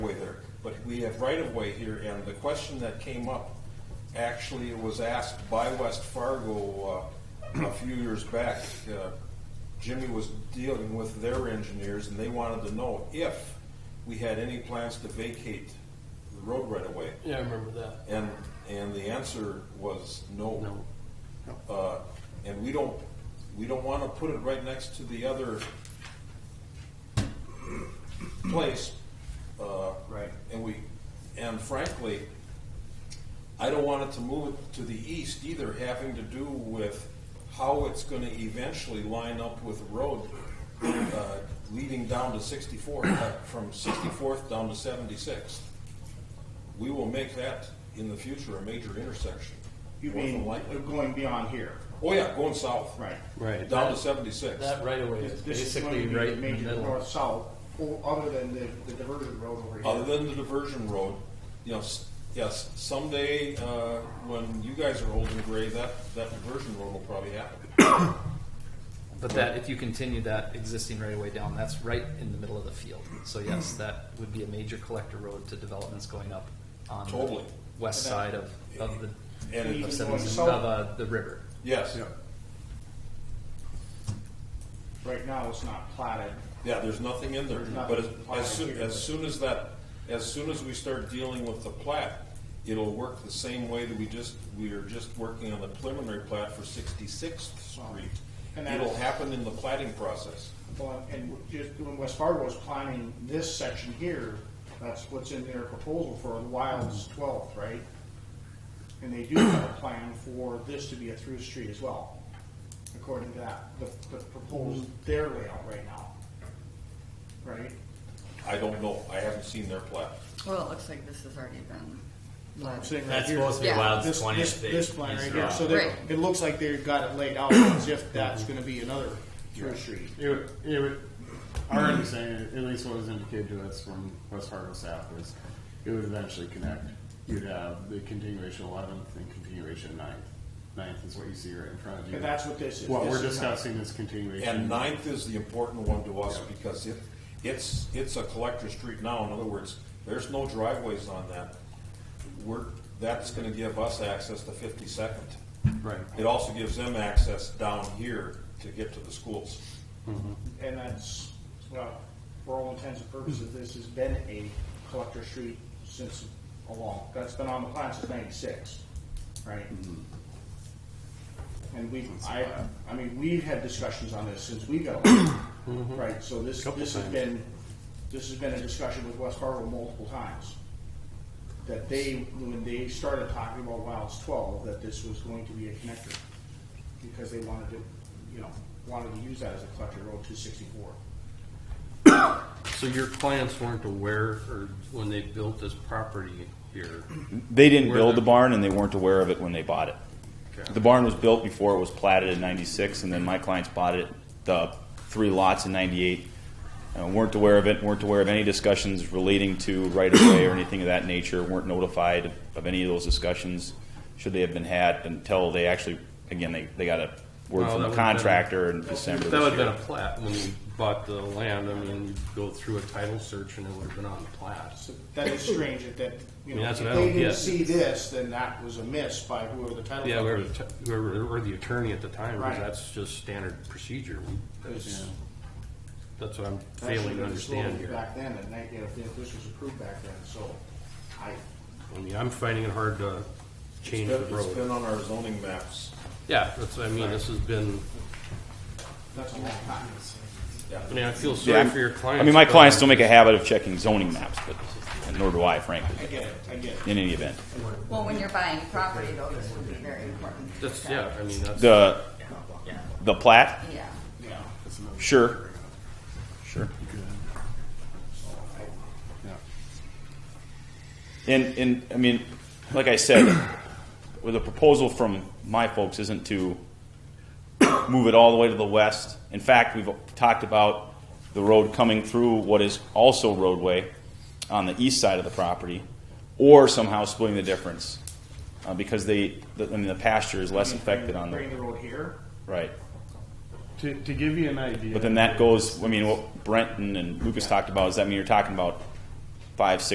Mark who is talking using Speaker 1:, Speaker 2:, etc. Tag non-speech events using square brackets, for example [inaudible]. Speaker 1: but we have right-of-way here, and the question that came up, actually, it was asked by West Fargo uh, a few years back. Uh, Jimmy was dealing with their engineers, and they wanted to know if we had any plans to vacate the road right-of-way.
Speaker 2: Yeah, I remember that.
Speaker 1: And, and the answer was
Speaker 2: No.
Speaker 1: uh, and we don't, we don't wanna put it right next to the other place. uh,
Speaker 3: Right.
Speaker 1: And we, and frankly, I don't want it to move it to the east either, having to do with how it's gonna eventually line up with the road, uh, leading down to sixty-fourth, from sixty-fourth down to seventy-sixth. We will make that in the future a major intersection.
Speaker 3: You
Speaker 1: more than
Speaker 3: mean
Speaker 1: likely.
Speaker 3: going beyond here,
Speaker 1: Oh yeah, going south.
Speaker 3: right?
Speaker 2: Right.
Speaker 1: Down to seventy-six.
Speaker 2: That right away is
Speaker 4: This this is going
Speaker 2: basically
Speaker 4: to be
Speaker 2: right
Speaker 4: the
Speaker 2: in the
Speaker 4: major
Speaker 2: middle.
Speaker 4: north-south, o- other than the, the diversion road over
Speaker 1: Other
Speaker 4: here.
Speaker 1: than the diversion road, you know, s- yes, someday, uh, when you guys are old and gray, that, that diversion road will probably happen.
Speaker 5: But that, if you continue that existing right away down, that's right in the middle of the field. So
Speaker 4: Hmm.
Speaker 5: yes, that would be a major collector road to developments going up on the
Speaker 1: Totally.
Speaker 5: west side of, of the,
Speaker 1: And
Speaker 5: of
Speaker 1: it-
Speaker 5: seven- of,
Speaker 4: south.
Speaker 5: uh, the river.
Speaker 1: yes,
Speaker 3: Right now, it's not platted.
Speaker 1: yeah, there's nothing in there,
Speaker 3: nothing
Speaker 1: but as,
Speaker 3: plotted
Speaker 1: as soon,
Speaker 3: here.
Speaker 1: as soon as that, as soon as we start dealing with the plat, it'll work the same way that we just, we are just working on the preliminary plat for Sixty-Sixth Street.
Speaker 3: And that
Speaker 1: It'll
Speaker 3: is-
Speaker 1: happen in the platting process.
Speaker 3: Well, and just when West Fargo was planning this section here, that's what's in their proposal for Wild's twelfth, right? And they do have a plan for this to be a through street as well, according to that, the, the proposed, their layout right now. Right?
Speaker 1: I don't know, I haven't seen their plat.
Speaker 6: Well, it looks like this has already been.
Speaker 3: I'm saying right
Speaker 7: That's
Speaker 3: here.
Speaker 7: supposed to be
Speaker 6: Yeah.
Speaker 7: Wild's
Speaker 3: This,
Speaker 7: twentieth.
Speaker 3: this, this plan right here, so
Speaker 6: Right.
Speaker 3: they, it looks like they've got it laid out as if that's gonna be another through street.
Speaker 8: It would, it would, our understanding, at least what was indicated to us from West Fargo South, is it would eventually connect. You'd have the continuation eleventh and continuation ninth. Ninth is what you see right in front of you.
Speaker 3: And that's what this is.
Speaker 8: What
Speaker 3: This
Speaker 8: we're
Speaker 3: is not-
Speaker 8: discussing is continuation.
Speaker 1: And Ninth is the important one to us because it, it's, it's a collector street now. In other words, there's no driveways on that. We're, that's gonna give us access to Fifty-second.
Speaker 8: Right.
Speaker 1: It also gives them access down here to get to the schools.
Speaker 3: And that's, well, for all intents and purposes, this has been a collector street since a long, that's been on the plan since ninety-six, right? And we, I, I mean, we've had discussions on this since we got, elected, right, so this,
Speaker 8: Mm-hmm. Couple
Speaker 3: this has
Speaker 8: times.
Speaker 3: been, this has been a discussion with West Fargo multiple times. That they, when they started talking about Wilds twelve, that this was going to be a connector, because they wanted to, you know, wanted to use that as a collector road two sixty-four.
Speaker 2: So your clients weren't aware, or when they built this property here,
Speaker 9: They didn't
Speaker 2: Where
Speaker 9: build
Speaker 2: the-
Speaker 9: the barn and they weren't aware of it when they bought it.
Speaker 2: Okay.
Speaker 9: The barn was built before it was platted in ninety-six and then my clients bought it, the three lots in ninety-eight. Uh, weren't aware of it, weren't aware of any discussions relating to right-of-way or anything of that nature, weren't notified of any of those discussions, should they have been had, until they actually, again, they, they got a
Speaker 2: Well,
Speaker 9: word
Speaker 2: that
Speaker 9: from the
Speaker 2: would've been-
Speaker 9: contractor in December
Speaker 2: that would have
Speaker 9: this
Speaker 2: been
Speaker 9: year.
Speaker 2: a plat when you bought the land. I mean, you go through a title search and it would have been on the plat.
Speaker 3: So that is strange that, that, you know,
Speaker 2: Yeah,
Speaker 3: if
Speaker 2: that's what
Speaker 3: they
Speaker 2: I don't
Speaker 3: didn't
Speaker 2: get.
Speaker 3: see this, then that was a miss by whoever the title.
Speaker 2: Yeah, whoever,
Speaker 3: company-
Speaker 2: the t- whoever, or the attorney at the time, because
Speaker 3: Right.
Speaker 2: that's just standard procedure. We-
Speaker 3: Because
Speaker 2: That's what I'm
Speaker 3: that should've
Speaker 2: failing to
Speaker 3: been
Speaker 2: understand
Speaker 3: disclosed
Speaker 2: here.
Speaker 3: Back then, and that, you know, if this was approved back then, so I,
Speaker 2: I mean, I'm finding it hard to change the
Speaker 1: It's been- It's
Speaker 2: road.
Speaker 1: been on our zoning maps.
Speaker 2: Yeah, that's, what I mean, this has been,
Speaker 3: that's a long time.
Speaker 2: I mean, I feel
Speaker 9: Yeah,
Speaker 2: sorry for your clients.
Speaker 9: I mean, my
Speaker 2: but-
Speaker 9: clients don't make a habit of checking zoning maps, but, and nor do I frankly,
Speaker 3: I get it, I get it.
Speaker 9: in any event.
Speaker 6: Well, when you're buying property though, this would be very important.
Speaker 2: That's, yeah, I mean, that's,
Speaker 9: The, the plat,
Speaker 6: Yeah.
Speaker 3: Yeah.
Speaker 9: Sure. Sure. And, and, I mean, like I said, [coughs] well, the proposal from my folks isn't to [coughs] move it all the way to the west. In fact, we've talked about the road coming through what is also roadway on the east side of the property, or somehow splitting the difference, uh, because they, the- I mean, the pasture is less affected on
Speaker 3: Bring
Speaker 9: the,
Speaker 3: the road here,
Speaker 9: right.
Speaker 8: To, to give you an idea.
Speaker 9: But then that goes, I mean, what Brenton and Lucas talked about, is that mean you're talking about five, six